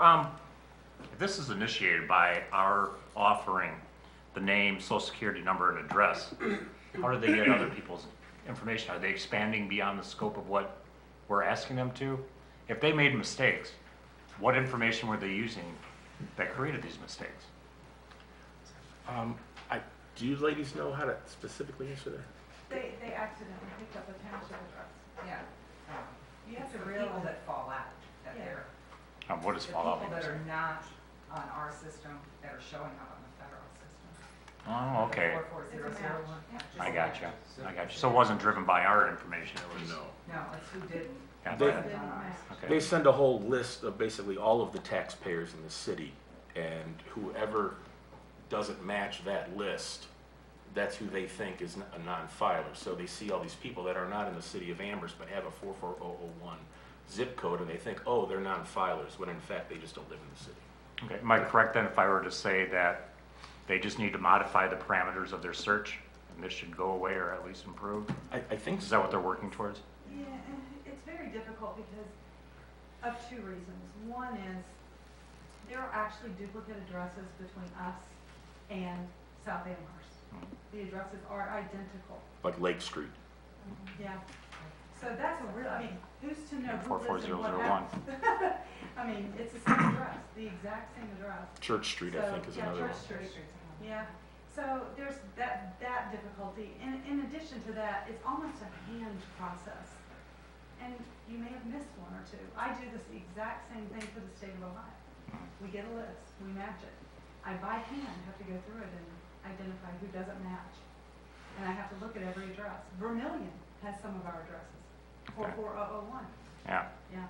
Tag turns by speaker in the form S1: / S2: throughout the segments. S1: um, this is initiated by our offering the name, social security number, and address. How do they get other people's information? Are they expanding beyond the scope of what we're asking them to? If they made mistakes, what information were they using that created these mistakes?
S2: Um, I, do you ladies know how to specifically answer that?
S3: They, they accidentally picked up a township address.
S4: Yeah,
S3: You
S4: it's
S3: have
S4: the
S3: to
S4: people
S3: realize
S4: that fall out, that
S3: Yeah.
S4: they're,
S1: Um, what is
S4: the
S1: fallout?
S4: people that are not on our system, that are showing up on the federal system.
S1: Oh, okay.
S4: Four four zero zero one.
S3: It's a match.
S1: I got you. I got you. So it wasn't driven by our information. It was.
S4: No, it's who didn't.
S1: Yeah,
S2: They-
S4: on
S3: Didn't
S4: ours.
S3: match.
S2: They
S1: Okay.
S2: send a whole list of basically all of the taxpayers in the city, and whoever doesn't match that list, that's who they think is n- a non-filer. So they see all these people that are not in the city of Amherst but have a 44001 zip code, and they think, oh, they're non-filers, when in fact they just don't live in the city.
S1: Okay. Am I correct then if I were to say that they just need to modify the parameters of their search and this should go away or at least improve?
S2: I, I think
S1: Is that what they're working towards?
S3: Yeah, it's very difficult because of two reasons. One is there are actually duplicate addresses between us and South Amherst. The addresses are identical.
S2: Like Lake Street.
S3: Yeah. So that's a real, I mean, who's to know who lives in what
S1: 44001.
S3: house? I mean, it's the same address, the exact same address.
S2: Church Street, I
S3: So,
S2: think, is
S3: yeah,
S2: another one.
S3: Church Street. Yeah, so there's that, that difficulty. In, in addition to that, it's almost a hand process. And you may have missed one or two. I do this exact same thing for the state of Ohio. We get a list, we match it. I by hand have to go through it and identify who doesn't match. And I have to look at every address. Vermillion has some of our addresses, four
S1: Okay.
S3: four oh oh one,
S1: Yeah.
S3: yeah.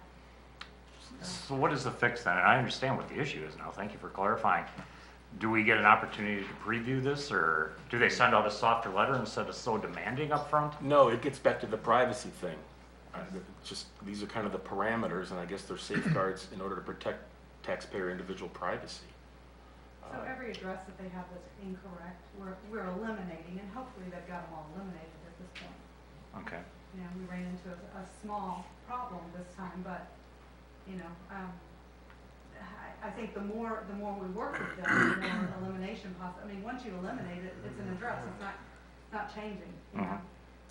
S1: So what is the fix then? And I understand what the issue is now. Thank you for clarifying. Do we get an opportunity to preview this or do they send out a softer letter instead of so demanding up front?
S2: No, it gets back to the privacy thing. I- Just, these are kind of the parameters, and I guess they're safeguards in order to protect taxpayer individual privacy.
S3: So every address that they have that's incorrect, we're, we're eliminating, and hopefully they've got them all eliminated at this point.
S1: Okay.
S3: You know, we ran into a, a small problem this time, but, you know, um, I, I think the more, the more we work with them, the more elimination possi, I mean, once you eliminate it, it's an address, it's not, it's not changing, you know?
S1: Mhm.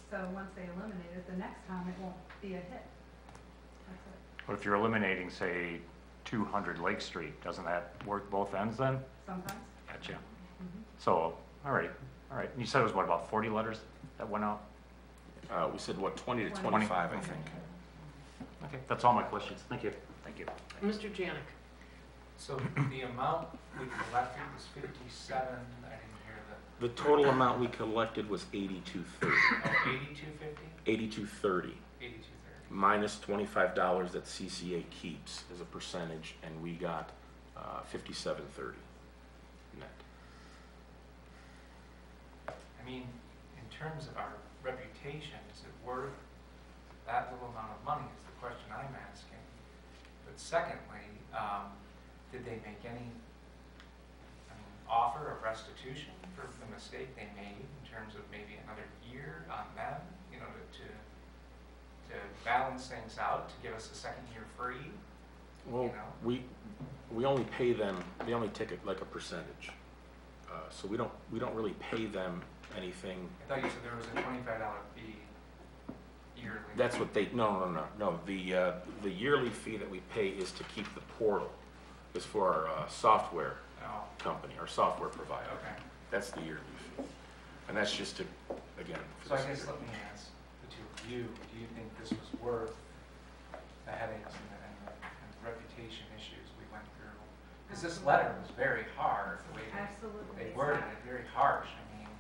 S3: So once they eliminate it, the next time it won't be a hit. That's it.
S1: But if you're eliminating, say, 200 Lake Street, doesn't that work both ends then?
S3: Sometimes,
S1: Gotcha.
S3: Mhm.
S1: So, all right, all right. You said it was what, about 40 letters that went out?
S2: Uh, we said, what, twenty to
S3: Twenty.
S2: twenty-five, I think.
S1: Okay, that's all my questions. Thank you. Thank you.
S5: Mr. Janik,
S6: So the amount we collected was fifty-seven, I didn't hear the,
S2: The total amount we collected was eighty-two thirty,
S6: oh, eighty-two fifty?
S2: eighty-two thirty,
S6: Eighty-two thirty.
S2: minus twenty-five dollars that CCA keeps as a percentage, and we got, uh, fifty-seven thirty net.
S6: I mean, in terms of our reputation, is it worth that little amount of money is the question I'm asking. But secondly, um, did they make any, I mean, offer of restitution for the mistake they made in terms of maybe another year on them, you know, to, to, to balance things out, to give us a second year free?
S2: Well,
S6: know?
S2: we, we only pay them, they only take it like a percentage. Uh, So we don't, we don't really pay them anything.
S6: I thought you said there was a twenty-five dollar fee yearly.
S2: That's what they, no, no, no, no. The, uh, the yearly fee that we pay is to keep the portal, is for our uh, software
S6: Oh,
S2: company, our software provider.
S6: okay.
S2: That's the yearly fee. And that's just to, again. for
S6: So I
S2: the
S6: guess let
S2: security.
S6: me ask the two of you, do you think this was worth the headaches and the, and the and the reputation issues we went through? Because this letter was very hard, the way they,
S3: absolutely.
S6: they worded it, very harsh, I mean,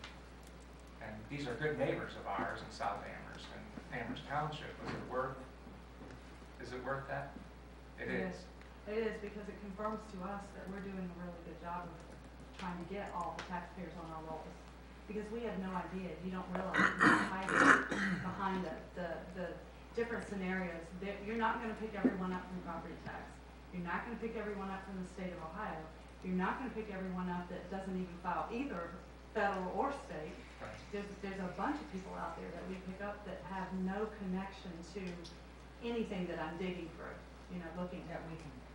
S6: and these are good neighbors of ours in South Amherst and Amherst Township, was it worth, is it worth that? It
S3: Yes.
S6: is,
S3: It is because it confirms to us that we're doing a really good job of trying to get all the taxpayers on our rolls. Because we have no idea, you don't realize what's hiding behind the, the, the different scenarios. There, you're not gonna pick everyone up from property tax. You're not gonna pick everyone up from the state of Ohio. You're not gonna pick everyone up that doesn't even file either federal or state
S6: right.
S3: there's, there's a bunch of people out there that we pick up that have no connection to anything that I'm digging through, you know, looking at.
S4: That we can